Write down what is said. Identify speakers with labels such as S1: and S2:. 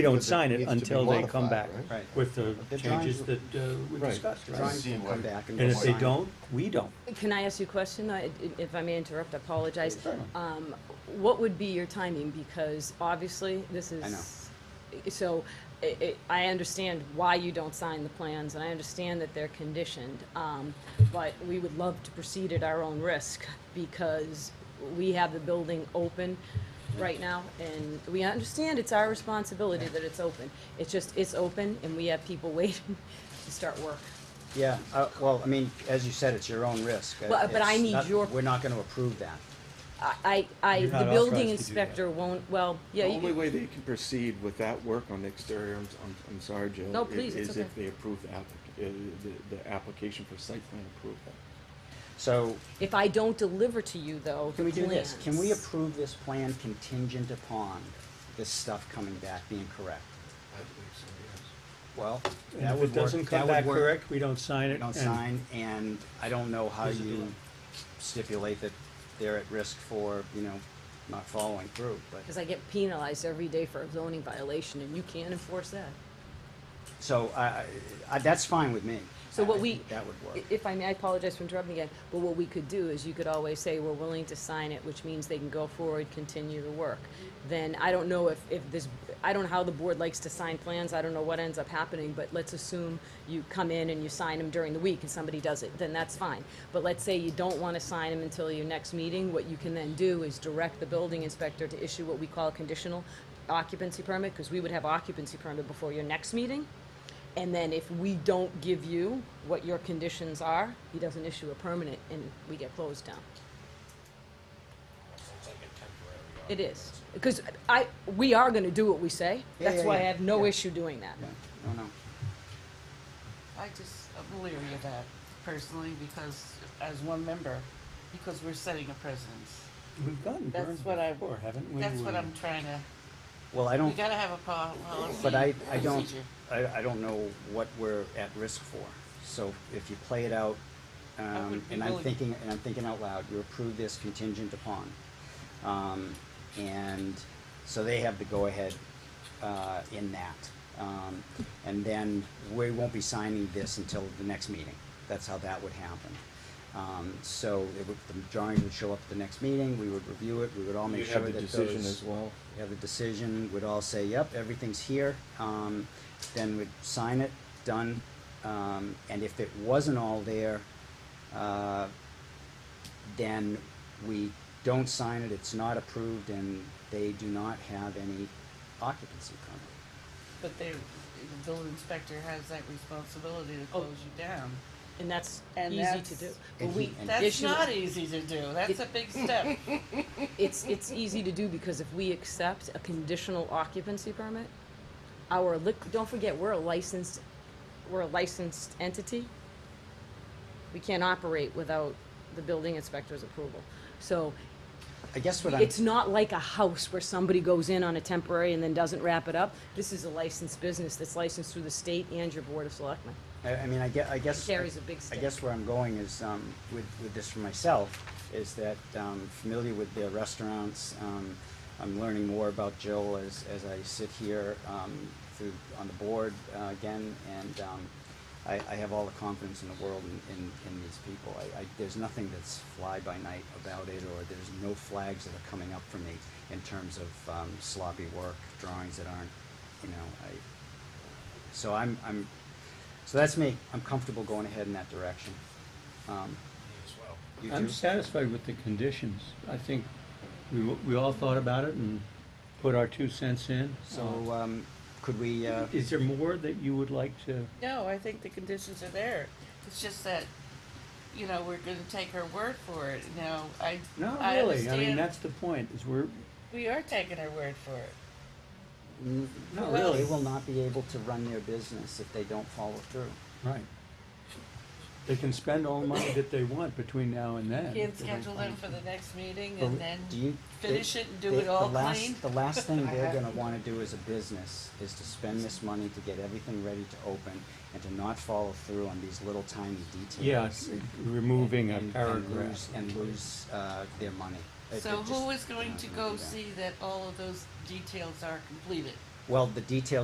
S1: We don't
S2: Because it
S1: sign it
S2: needs to be
S1: until they come back
S2: modified, right?
S1: with the
S2: The drawings
S1: changes
S2: will-
S1: that uh, we
S2: Right.
S1: discussed, right?
S2: Drawings will come back and
S1: And
S2: we'll
S1: if they
S2: sign it.
S1: don't, we don't.
S3: Can I ask you a question? I- If I may interrupt, I apologize. Um, What would be your timing? Because obviously, this is. So i- i- I understand why you don't sign the plans, and I understand that they're conditioned. um, But we would love to proceed at our own risk because we have the building open right now, and we understand it's our responsibility that it's open. It's just, it's open, and we have people waiting to start work.
S2: Yeah, uh, well, I mean, as you said, it's your own risk. Uh,
S3: Well, but I
S2: it's
S3: need
S2: not-
S3: your-
S2: We're not gonna approve that.
S3: I, I,
S1: You're
S3: the
S1: not authorized
S3: building
S1: to do that.
S3: inspector won't, well, yeah,
S4: The only
S3: you,
S4: way they can proceed with that work on the exterior, I'm, I'm, I'm sorry, Joe.
S3: No,
S4: i-
S3: please, it's
S4: Is
S3: okay.
S4: if they approve the applic- uh, the, the application for site plan approval.
S2: So,
S3: if I don't deliver to you though,
S2: can we do this? Can we
S3: plans-
S2: approve this plan contingent upon this stuff coming back being correct? Well,
S1: And
S2: that
S1: if it
S2: would work,
S1: doesn't
S2: that
S1: come
S2: would
S1: back
S2: work.
S1: correct, we don't sign it.
S2: You
S1: and-
S2: don't sign, and I don't know how
S1: Doesn't do
S2: you stipulate that they're at risk for, you know, not following through, but.
S3: Cause I get penalized every day for a zoning violation and you can't enforce that.
S2: So I, I- I, that's fine with me.
S3: So
S2: I
S3: what we.
S2: think That would work.
S3: i- If I may, I apologize for interrupting again, but what we could do is you could always say, we're willing to sign it, which means they can go forward, continue the work. Then I don't know if, if this, I don't know how the board likes to sign plans, I don't know what ends up happening, but let's assume you come in and you sign them during the week and somebody does it, then that's fine. But let's say you don't wanna sign them until your next meeting, what you can then do is direct the building inspector to issue what we call a conditional occupancy permit, cause we would have occupancy permit before your next meeting. And then if we don't give you what your conditions are, he doesn't issue a permanent and we get closed down. It is, because I, we are gonna do what we say,
S2: Yeah,
S3: that's
S2: yeah,
S3: why I
S2: yeah,
S3: have no
S2: yeah.
S3: issue doing that.
S2: Yeah, no, no.
S5: I just, I'm leery of that personally because, as one member, because we're setting a precedence.
S1: We've gotten
S5: That's
S1: burned
S5: what I-
S1: before, haven't we?
S5: That's what
S1: We-
S5: I'm trying to,
S2: Well, I
S5: we
S2: don't,
S5: gotta have a po, well, let's
S2: but I,
S5: see,
S2: I don't,
S5: procedure.
S2: I, I don't know what we're at risk for. So if you play it out, um,
S5: would be
S2: and I'm
S5: willing-
S2: thinking, and I'm thinking out loud, you approve this contingent upon. Um, and so they have the go-ahead, uh, in that. Um, and then we won't be signing this until the next meeting. That's how that would happen. Um, so it would, the drawings would show up at the next meeting, we would review it, we would all
S4: You
S2: make sure
S4: have
S2: that
S4: the
S2: those.
S4: decision as well.
S2: We have the decision, we'd all say, yep, everything's here, um, then we'd sign it, done. Um, and if it wasn't all there, uh, then we don't sign it, it's not approved, and they do not have any occupancy permit.
S5: But they, the building inspector has that responsibility to close you down.
S3: And that's
S5: Oh. And
S3: easy to
S5: that's-
S3: do. But
S2: And
S3: we,
S2: he- and-
S5: That's
S3: Issue-
S5: not easy to do, that's a big step.
S3: it's, it's easy to do because if we accept a conditional occupancy permit, our lic, don't forget, we're a licensed, we're a licensed entity. We can't operate without the building inspector's approval. So
S2: I guess what I'm,
S3: It's not like a house where somebody goes in on a temporary and then doesn't wrap it up. This is a licensed business that's licensed through the state and your board of selectmen.
S2: I, I mean, I guess, I guess.
S3: carries a big stick.
S2: I guess where I'm going is, um, with, with this for myself, is that, um, familiar with their restaurants, um, I'm learning more about Jill as, as I sit here, um, through, on the board, uh, again, and, um, I, I have all the confidence in the world in, in, in these people. I, I, there's nothing that's fly-by-night about it, or there's no flags that are coming up for me in terms of, um, sloppy work, drawings that aren't, you know, I, so I'm, I'm, so that's me. I'm comfortable going ahead in that direction. Um, you
S1: I'm
S2: too?
S1: satisfied with the conditions. I think we, w- we all thought about it and put our two cents in. Oh.
S2: So, um, could we,
S1: Uh,
S2: uh,
S1: Is there more that you would like to?
S5: No, I think the conditions are there. It's just that, you know, we're gonna take her word for it. Now, I,
S1: Not
S5: I
S1: really. I mean,
S5: understand-
S1: that's the point, is we're,
S5: We are taking her word for it.
S2: n-
S1: not
S5: Well-
S2: they
S1: really,
S2: will not be able to run their business if they don't follow through.
S1: right. They can spend all the money that they want between now and then.
S5: Can't
S1: if they don't
S5: schedule them for
S1: follow
S5: the next meeting
S2: Well,
S5: and then
S2: Do you? they-
S5: finish it and do
S2: they-
S5: it all
S2: the last-
S5: clean?
S2: The last thing
S5: I
S2: they're
S5: have-
S2: gonna wanna do as a business is to spend this money to get everything ready to open and to not follow through on these little tiny details.
S1: through. Yes, removing a
S2: and- and
S1: paragraph.
S2: lose- And lose, uh, their money. It-
S5: So
S2: it
S5: who
S2: just-
S5: is going
S2: they're
S5: to
S2: not gonna
S5: go
S2: do that.
S5: see that all of those details are completed?
S2: well, the details